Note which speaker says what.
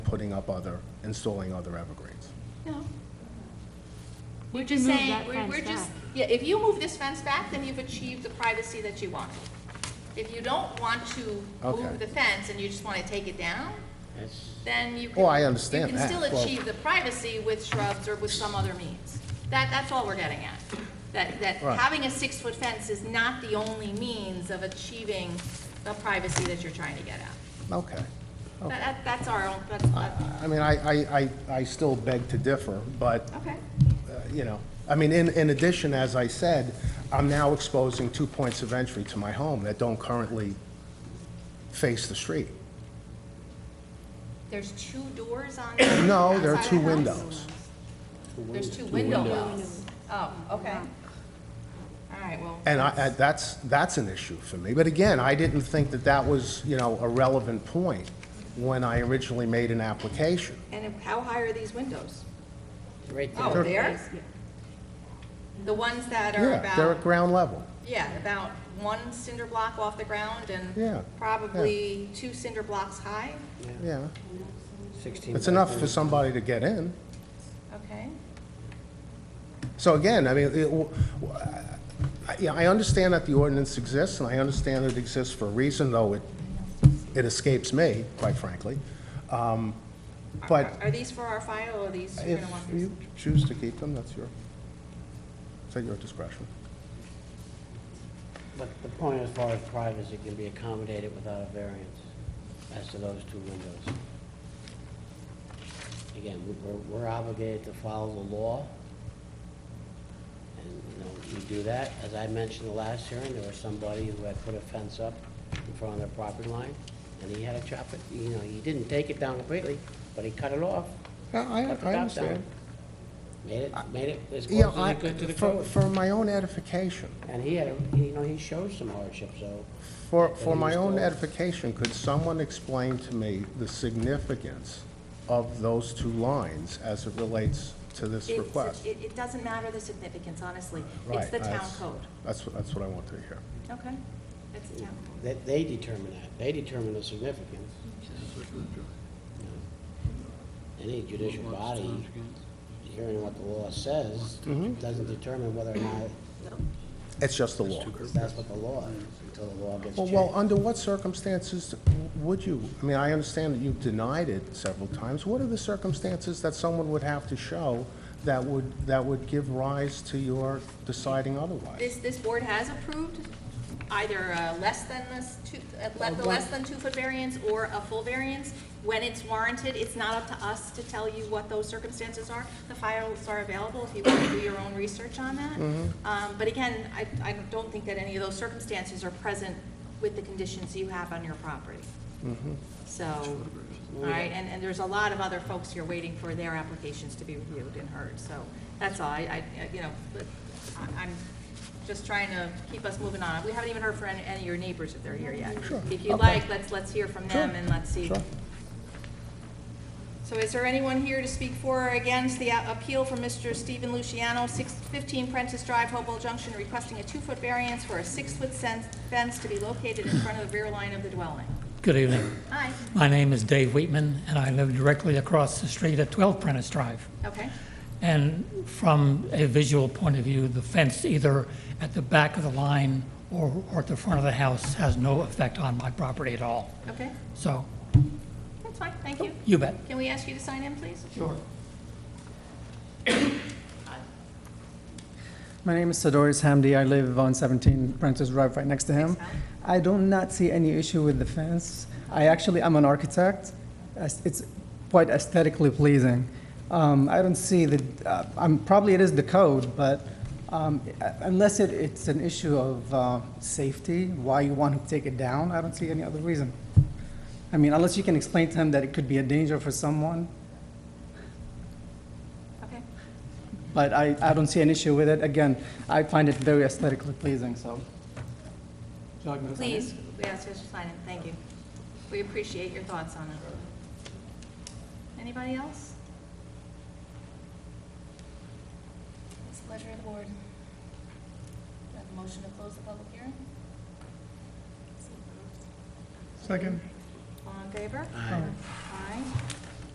Speaker 1: putting up other, installing other evergreens.
Speaker 2: No. We're
Speaker 3: We can
Speaker 2: just
Speaker 3: move
Speaker 2: saying,
Speaker 3: that
Speaker 2: we're,
Speaker 3: fence
Speaker 2: we're just,
Speaker 3: back.
Speaker 2: yeah, if you move this fence back, then you've achieved the privacy that you want. If you don't want to
Speaker 1: Okay.
Speaker 2: move the fence and you just wanna take it down, then you can.
Speaker 1: Oh, I understand that.
Speaker 2: You can still
Speaker 1: Well-
Speaker 2: achieve the privacy with shrubs or with some other means. That, that's all we're getting at. That, that
Speaker 1: Right.
Speaker 2: having a six-foot fence is not the only means of achieving the privacy that you're trying to get at.
Speaker 1: Okay.
Speaker 2: That,
Speaker 1: Okay.
Speaker 2: that- that's our own, that's, that's,
Speaker 1: I mean, I, I, I I still beg to differ, but,
Speaker 2: okay.
Speaker 1: uh, you know, I mean, in, in addition, as I said, I'm now exposing two points of entry to my home that don't currently face the street.
Speaker 2: There's two doors on.
Speaker 1: No, there are
Speaker 2: outside
Speaker 1: two
Speaker 2: the house?
Speaker 1: windows.
Speaker 2: There's two window wells. Oh, okay. All right, well.
Speaker 1: And I, I- that's, that's an issue for me. But again, I didn't think that that was, you know, a relevant point when I originally made an application.
Speaker 2: And how high are these windows?
Speaker 4: Right there.
Speaker 2: Oh, there? The ones that are
Speaker 1: Yeah, they're at
Speaker 2: about,
Speaker 1: ground level.
Speaker 2: yeah, about one cinder block off the ground
Speaker 1: Yeah,
Speaker 2: and probably two cinder blocks high,
Speaker 1: Yeah.
Speaker 4: 16
Speaker 1: It's
Speaker 4: by
Speaker 1: enough for
Speaker 4: 30.
Speaker 1: somebody to get in.
Speaker 2: okay?
Speaker 1: So again, I mean, it, w- w- I- yeah, I understand that the ordinance exists, and I understand it exists for a reason, though it, it escapes me, quite frankly. Um,
Speaker 2: Are-
Speaker 1: But
Speaker 2: Are these for our file or are these, you're
Speaker 1: if
Speaker 2: gonna want these?
Speaker 1: you choose to keep them, that's your, it's at your discretion.
Speaker 4: But the point as far as privacy can be accommodated without a variance as to those two windows. Again, we- we're, we're obligated to follow the law. And, you know, we do that. As I mentioned the last hearing, there was somebody who had put a fence up in front of their property line, and he had to chop it, you know, he didn't take it down completely, but he cut it off.
Speaker 1: Yeah, I,
Speaker 4: cut the
Speaker 1: I
Speaker 4: top
Speaker 1: understand.
Speaker 4: down, Made it, made it as
Speaker 1: You know,
Speaker 4: close as
Speaker 1: I,
Speaker 4: he could to the
Speaker 1: for,
Speaker 4: code.
Speaker 1: for my own edification,
Speaker 4: And he had, a- you know, he showed some hardship, so
Speaker 1: for, for
Speaker 4: And
Speaker 1: my
Speaker 4: he's
Speaker 1: own
Speaker 4: still-
Speaker 1: edification, could someone explain to me the significance of those two lines as it relates to this
Speaker 2: It's-
Speaker 1: request?
Speaker 2: It, it doesn't matter the significance, honestly. It's
Speaker 1: Right,
Speaker 2: the town
Speaker 1: that's-
Speaker 2: code,
Speaker 1: That's, what- that's what I want to hear.
Speaker 2: okay? It's the town code.
Speaker 4: that they determine that. They determine the significance. Any judicial body hearing what the law says
Speaker 1: Mm-hmm.
Speaker 4: doesn't determine whether or not
Speaker 1: It's just the law.
Speaker 4: that's what the law is until the law gets
Speaker 1: Well, well,
Speaker 4: changed.
Speaker 1: under what circumstances would you, I mean, I understand that you denied it several times. What are the circumstances that someone would have to show that would, that would give rise to your deciding otherwise?
Speaker 2: This, this board has approved either uh, less than this two, uh, le- the less than two-foot variance or a full variance. When it's warranted, it's not up to us to tell you what those circumstances are. The files are available if you want to do your own research on that. Um, But again, I, I don't think that any of those circumstances are present with the conditions you have on your property. So, all right, and, and there's a lot of other folks here waiting for their applications to be reviewed and heard, so that's all, I, I, you know, but I- I'm just trying to keep us moving on. We haven't even heard from any, any of your neighbors if they're here yet.
Speaker 1: Sure,
Speaker 2: If you'd
Speaker 1: okay.
Speaker 2: like, let's, let's hear from them
Speaker 1: Sure,
Speaker 2: and let's see.
Speaker 1: Sure.
Speaker 2: So is there anyone here to speak for or against the a- appeal from Mr. Stephen Luciano, six- 15 Prentice Drive, Hopewell Junction, requesting a two-foot variance for a six-foot sen- fence to be located in front of the rear line of the dwelling?
Speaker 5: Good evening.
Speaker 2: Hi,
Speaker 5: My name is Dave Wheatman, and I live directly across the street at 12 Prentice Drive.
Speaker 2: okay.
Speaker 5: And from a visual point of view, the fence either at the back of the line or or at the front of the house has no effect on my property at all.
Speaker 2: Okay,
Speaker 5: So,
Speaker 2: that's fine, thank you.
Speaker 5: you bet.
Speaker 2: Can we ask you to sign in, please?
Speaker 5: Sure.
Speaker 6: My name is Sadoris Hamdi. I live on 17 Prentice Drive, right next to him.
Speaker 2: Thanks,
Speaker 6: I do not see any issue with the fence. I actually, I'm an architect. As- It's quite aesthetically pleasing. Um, I don't see the, uh, I'm, probably it is the code, but um, uh, unless it, it's an issue of uh, safety, why you want to take it down, I don't see any other reason. I mean, unless you can explain to him that it could be a danger for someone,
Speaker 2: Okay,
Speaker 6: but I, I don't see an issue with it. Again, I find it very aesthetically pleasing, so. Would you like me to sign it?
Speaker 2: please, we ask you to sign in, thank you. We appreciate your thoughts on it. Anybody else? It's the pleasure of the board. Do I have a motion to close the public hearing? Second. All in favor? Aye. Aye.